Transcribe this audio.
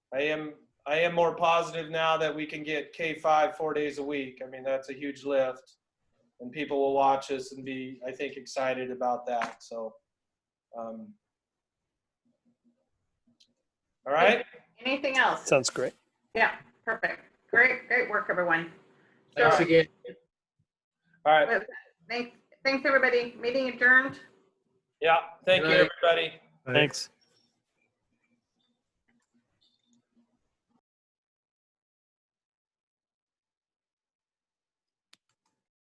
I am I am more positive now that we can get K five four days a week. I mean, that's a huge lift, and people will watch us and be I think excited about that. So, um, all right, Anything else? Sounds great. Yeah, perfect. Great, great work, everyone. Thanks Sure. again. all right, Thanks, thanks, everybody. Meeting adjourned. yeah. Thank you, Good night. everybody. Thanks.